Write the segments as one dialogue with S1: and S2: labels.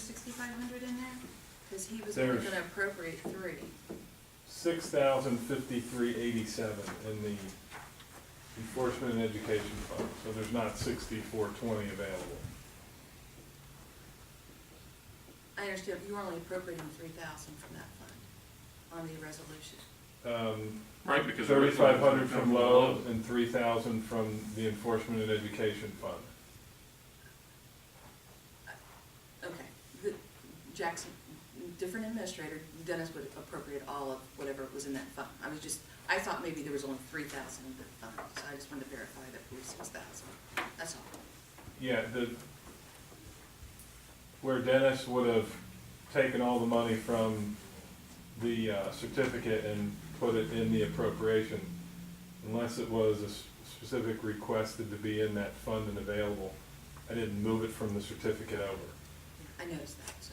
S1: forty-five hundred in there? Cause he was only
S2: There's-
S1: gonna appropriate three.
S2: Six thousand fifty-three eighty-seven in the enforcement and education fund, so there's not sixty-four twenty available.
S1: I understand, you were only appropriating three thousand from that fund on the resolution.
S2: Um,
S3: Right, because. the original
S2: thirty-five
S3: was
S2: hundred
S3: gonna
S2: from
S3: come
S2: Lowe and three thousand from the enforcement and education fund.
S1: Okay, the, Jackson, different administrator, Dennis would appropriate all of whatever was in that fund. I was just, I thought maybe there was only three thousand in the fund, so I just wanted to verify that it was six thousand, that's all.
S2: Yeah, the, where Dennis would have taken all the money from the uh, certificate and put it in the appropriation, unless it was a s- specific requested to be in that fund and available, I didn't move it from the certificate over.
S1: I noticed that, so.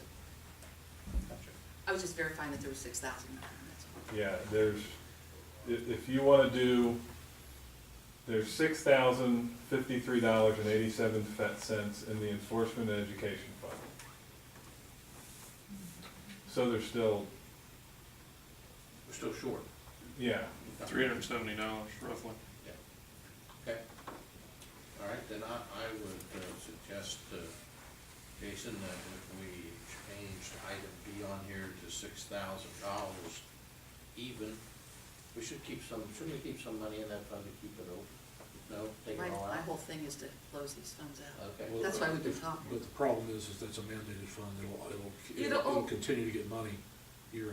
S1: I was just verifying that there was six thousand in there, that's all.
S2: Yeah, there's, if, if you wanna do, there's six thousand fifty-three dollars and eighty-seven cents in the enforcement and education fund. So there's still,
S4: We're still short.
S2: yeah,
S3: up Three hundred and seventy dollars roughly.
S4: Okay. All right, then I, I would uh, suggest, uh, Jason, that if we changed item B on here to six thousand dollars even, we should keep some, should we keep some money in that fund to keep it open? No, take
S1: My,
S4: it all
S1: my
S4: out?
S1: whole thing is to close these funds out.
S4: Okay.
S5: Well,
S1: That's why we do
S5: but-
S1: top.
S5: But the problem is, is that's a mandated fund, it'll, it'll-
S1: You
S5: it'll,
S1: don't-
S5: it'll continue to get money year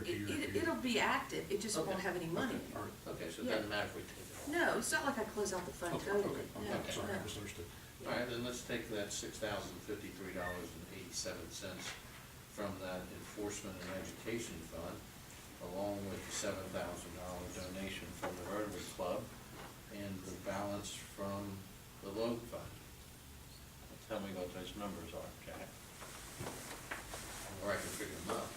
S1: It,
S5: after year after
S1: it,
S5: year.
S1: it'll be active, it just won't
S4: Okay.
S1: have any money.
S5: Okay, all right.
S4: Okay, so it
S1: Yeah.
S4: doesn't matter if we take it
S1: No, it's not like I close out the fund
S5: Oh, Okay,
S1: totally,
S5: okay,
S1: no,
S5: okay, sorry, I
S1: no.
S5: misunderstood.
S4: all. All right, then let's take that six thousand fifty-three dollars and eighty-seven cents from that enforcement and education fund, along with the seven thousand dollar donation from the Rotary Club, and the balance from the loan fund. Tell me what those numbers are, Jack. Or I can figure them out.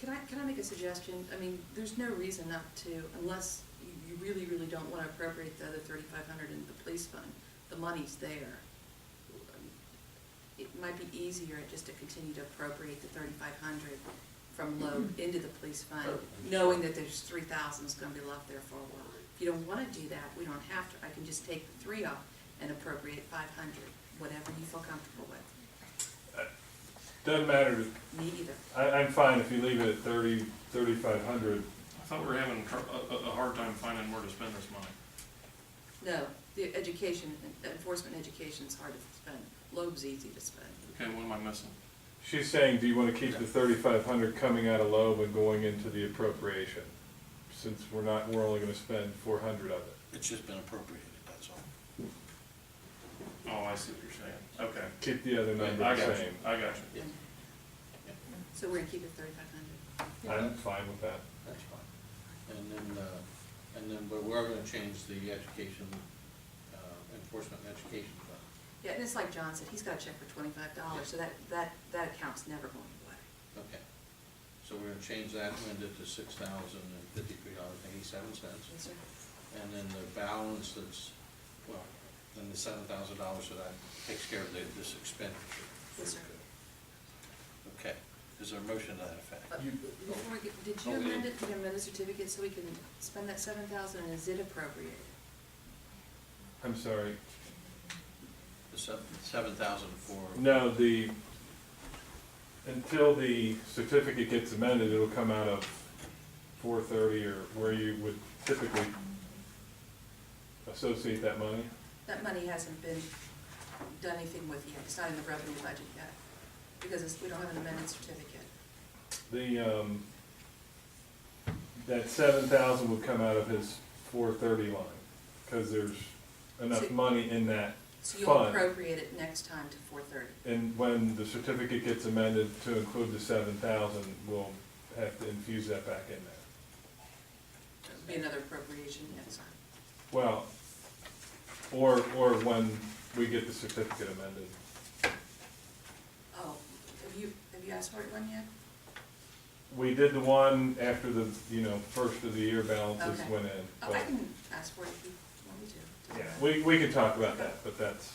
S1: Can I, can I make a suggestion? I mean, there's no reason not to, unless you- you really, really don't want to appropriate the other thirty-five hundred in the police fund, the money's there. It might be easier just to continue to appropriate the thirty-five hundred from low into the police fund, knowing that there's three thousand is going to be left there for a while. If you don't want to do that, we don't have to, I can just take the three off and appropriate five hundred, whatever you feel comfortable with.
S2: doesn't matter,
S1: Me either.
S2: I, I'm fine if you leave it at thirty, thirty-five hundred.
S3: I thought we were having tr- a, a, a hard time finding where to spend this money.
S1: No, the education, enforcement education's hard to spend, Loeb's easy to spend.
S3: Okay, what am I missing?
S2: She's saying, do you wanna keep the thirty-five hundred coming out of Loeb and going into the appropriation? Since we're not, we're only gonna spend four hundred of it.
S4: It's just been appropriated, that's all.
S3: Oh, I see what you're saying. Okay.
S2: Keep the other
S3: I
S2: number
S3: got
S2: the
S3: you,
S2: same.
S3: I got you.
S4: Yeah,
S1: So we're gonna keep it thirty-five hundred.
S2: I'm fine with that.
S4: that's fine. And then, uh, and then, but we're gonna change the education, uh, enforcement and education fund.
S1: Yeah, and it's like John said, he's got a check for twenty-five dollars, so that, that, that account's never going away.
S4: Okay, so we're gonna change that amended to six thousand and fifty-three dollars and eighty-seven cents,
S1: Yes, sir.
S4: and then the balance that's, well, then the seven thousand dollars that I takes care of the- this expenditure.
S1: Yes, sir.
S4: Okay, is there a motion to that effect?
S1: Uh,
S2: You-
S1: Before we get, did you
S4: Oh, yeah.
S1: amend it, did you amend the certificate so we can spend that seven thousand, and is it appropriated?
S2: I'm sorry,
S4: The seven, seven thousand for,
S2: no, the, until the certificate gets amended, it'll come out of four thirty or where you would typically associate that money.
S1: That money hasn't been done anything with yet, it's not in the revenue budget yet, because it's, we don't have an amended certificate.
S2: The, um, that seven thousand would come out of his four thirty line, cause there's enough
S1: So-
S2: money in that
S1: So you'll
S2: fund.
S1: appropriate it next time to four thirty.
S2: And when the certificate gets amended to include the seven thousand, we'll have to infuse that back in there.
S1: Be another appropriation next time.
S2: Well, or, or when we get the certificate amended.
S1: Oh, have you, have you asked for it one yet?
S2: We did the one after the, you know, first of the year balances
S1: Okay.
S2: went in,
S1: Oh, I
S2: but
S1: can ask for it if you want me to.
S2: Yeah, we, we could talk about that, but that's.